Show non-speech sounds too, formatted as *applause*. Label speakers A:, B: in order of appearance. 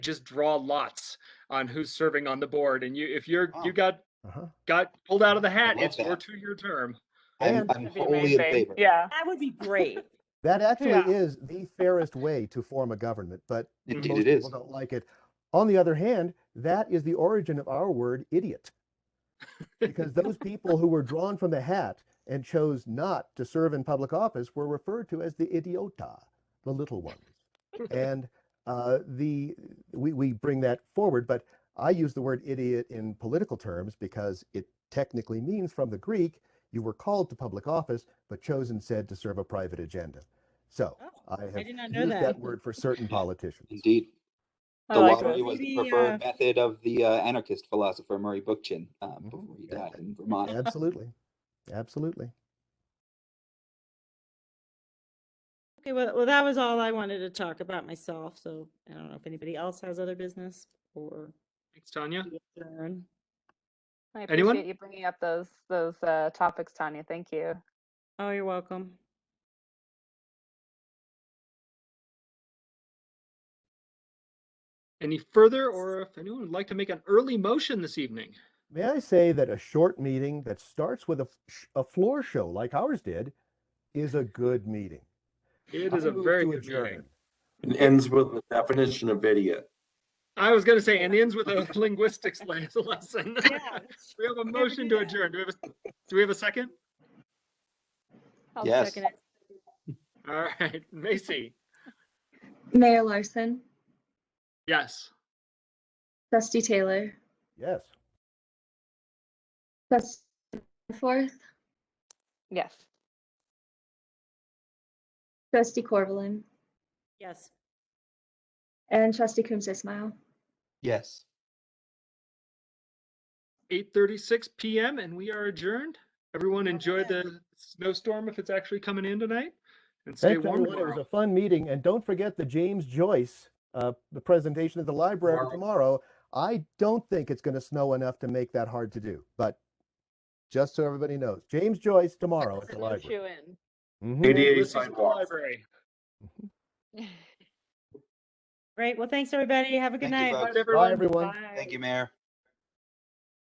A: just draw lots on who's serving on the board, and you if you're
B: Wow.
A: you got
C: Uh-huh.
A: got pulled out of the hat,
B: love
A: it's your
B: that.
A: two-year term.
B: I'm,
C: And-
B: I'm
D: That'd be
B: wholly in
D: amazing.
B: favor.
D: Yeah.
E: That would be great.
C: That actually
D: Yeah.
C: is the fairest way to form a government, but
B: Indeed
C: most
B: it is.
C: people don't like it. On the other hand, that is the origin of our word idiot. Because those people who were drawn from the hat and chose not to serve in public office were referred to as the idiota, the little ones. And uh, the we, we bring that forward, but I use the word idiot in political terms because it technically means from the Greek, you were called to public office, but chose instead to serve a private agenda. So
E: Oh,
C: I have
E: I did not know
C: used that
E: that.
C: word for certain politicians.
B: Indeed.
D: I
B: The
D: like
E: it.
B: lottery was the
E: Maybe,
B: preferred
E: uh,
B: method of the uh, anarchist philosopher Murray Bookchin uh,
C: Mhm.
B: before he
C: Yeah.
B: died in Vermont.
C: Absolutely. Absolutely.
E: Okay, well, well, that was all I wanted to talk about myself, so I don't know if anybody else has other business or
A: Thanks, Tanya.
E: we adjourn.
D: I appreciate
A: Anyone?
D: you bringing up those those uh, topics, Tanya. Thank you.
E: Oh, you're welcome.
A: Any further, or if anyone would like to make an early motion this evening?
C: May I say that a short meeting that starts with a, f- sh- a floor show like ours did is a good meeting.
A: It
C: I
A: is a
C: move
A: very
C: to
A: good meeting.
C: adjourn.
F: It ends with the definition of idiot.
A: I was going to say, and ends with a linguistics le- *laughs* lesson. we have a
E: never
A: motion
E: do
A: to
E: that.
A: adjourn. Do we have a, do we have a second?
D: I'll
B: Yes.
E: Second it.
A: All right, *laughs* Macy.
G: Mayor Larson,
A: Yes.
G: Trustee Taylor,
C: Yes.
G: Trustee Forth,
D: Yes.
G: Trustee Corvallin,
E: *laughs* Yes.
G: and Trustee Coombs Ismail.
B: Yes.
A: 8:36 p.m. and we are adjourned. Everyone enjoy
E: right.
A: the snowstorm if it's actually coming in tonight, and stay
C: Thanks,
A: warm.
C: everyone. It was a fun meeting. And don't forget the James Joyce uh, the presentation at the library
F: Tomorrow.
C: tomorrow. I don't think it's going to snow enough to make that hard to do, but just so everybody knows, James Joyce tomorrow at the library. Mhm.
F: ADA
A: Ulysses at the
F: sidewalk.
A: library.
E: Great, well, thanks, everybody. Have a good
B: Thank you,
E: night.
B: folks.
A: Bye, everyone.
C: Bye, everyone.
B: Thank you, Mayor.